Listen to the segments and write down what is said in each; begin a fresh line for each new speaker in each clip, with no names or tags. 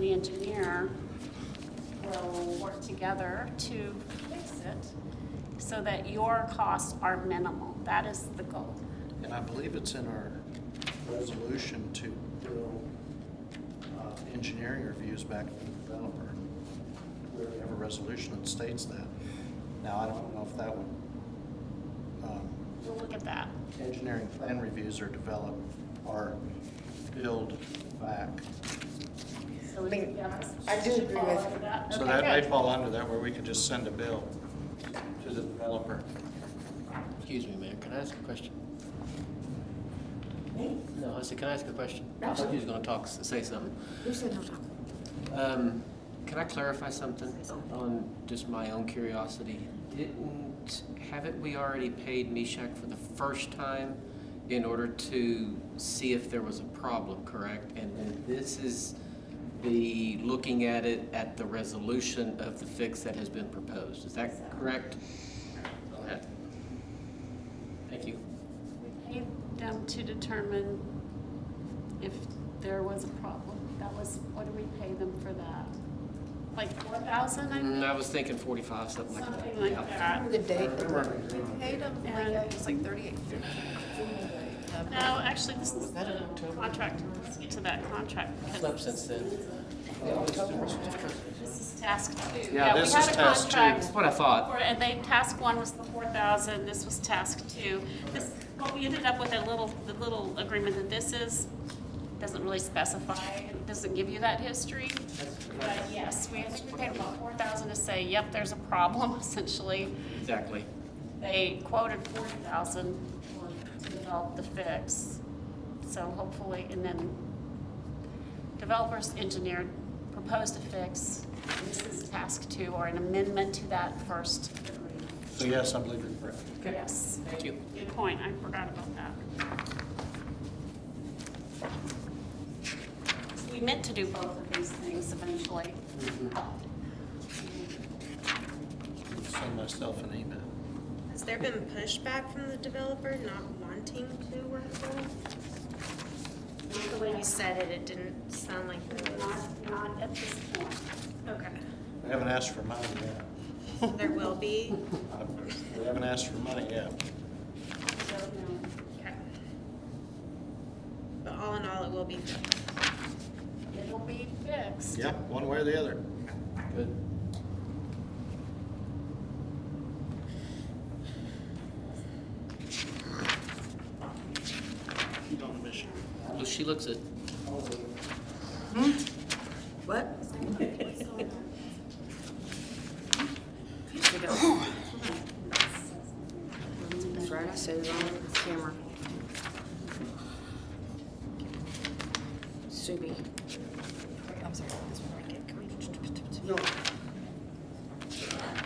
the engineer will work together to fix it so that your costs are minimal. That is the goal.
And I believe it's in our resolution to bill uh, engineering reviews back to the developer. We already have a resolution that states that. Now, I don't know if that would, um,
We'll look at that.
engineering plan reviews are developed or billed back.
So we
I mean,
yes,
I do
should
agree
follow
with-
up that.
So
Okay,
that may
good.
fall under that, where we could just send a bill to the developer.
Excuse me, Mayor, can I ask a question? No, I said, can I ask a question?
No.
Somebody was gonna talk, say something.
You said no talk.
Um, can I clarify something on just my own curiosity? Didn't, haven't we already paid Mishak for the first time in order to see if there was a problem, correct? And then this is the, looking at it at the resolution of the fix that has been proposed, is that correct? Okay. Thank you.
We Need them to determine if there was a problem. That was, what do we pay them for that? Like four thousand, I
Mm,
think?
I was thinking forty-five, something like that.
Something like
Yeah.
that.
The date,
Paid them, like,
And-
it was like thirty-eight fifty.
No, actually, this is
that in
the
October?
contract. Let's get to that contract.
It's
because
up since then.
This is task two.
Yeah, this is task two.
We had a
That's
contract,
what I thought.
for- and they, task one was the four thousand, this was task two. This, what we ended up with, a little, the little agreement that this is, doesn't really specify, it doesn't give you that history. But yes, we, I think we paid about four thousand to say, yep, there's a problem essentially.
Exactly.
They quoted forty thousand to develop the fix. So hopefully, and then developers engineer proposed a fix. This is task two or an amendment to that first agreement.
So yes, I believe you're correct.
Yes,
Thank you.
good point. I forgot about that. We meant to do both of these things eventually.
Send myself an email.
Has there been pushback from the developer not wanting to work with? us? The way you said it, it didn't sound like there was.
Not, not at this point.
Okay,
We haven't asked for money yet.
there will be.
Uh, We haven't asked for money yet.
Don't know.
Okay. But all in all, it will be fixed.
It'll be fixed.
Yeah, one way or the other.
Good. Well, she looks at,
what?
uh,
That's right, I said it on camera. Subi.
I'm sorry, this one right here. Can we-
No.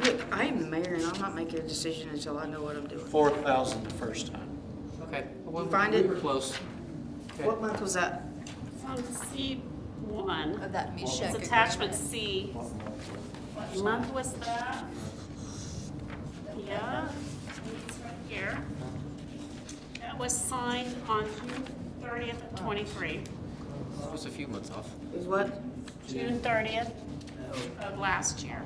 Look, I am the mayor and I'm not making a decision until I know what I'm doing.
Four thousand the first time.
okay. well,
You find
we
it?
were close. Okay.
What month was that?
It's on C
Oh,
one.
Of that Meshach
It's
agreement.
attachment C. What month was that? Yeah, it's right here. That was signed on June thirtieth of twenty-three.
It was a few months off.
It was what?
June thirtieth of last year.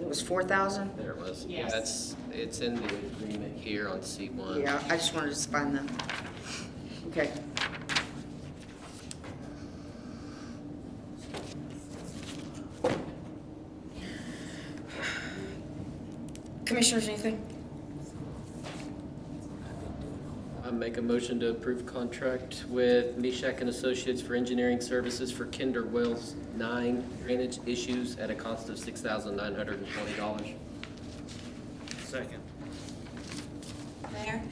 It was four thousand?
There it was. Yeah,
Yes.
it's, it's in the agreement here on C one.
Yeah, I just wanted to find them. Okay. Commissioners, anything?
I make a motion to approve contract with Mishak and Associates for engineering services for Kinder Wells nine drainage issues at a cost of six thousand nine hundred and twenty dollars.
Mayor,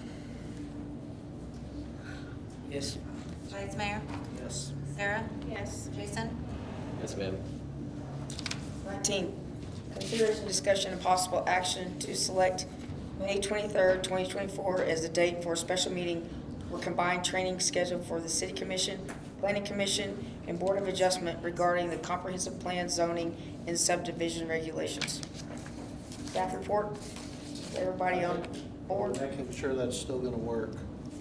Yes.
Vice Mayor,
Yes.
Sarah,
Yes.
Jason?
Yes, ma'am.
Nineteen, consideration, discussion, and possible action to select May twenty-third, twenty twenty-four as the date for a special meeting or combined training scheduled for the city commission, planning commission, and board of adjustment regarding the comprehensive plan zoning and subdivision regulations. Staff report, everybody on board?
Making sure that's still gonna work.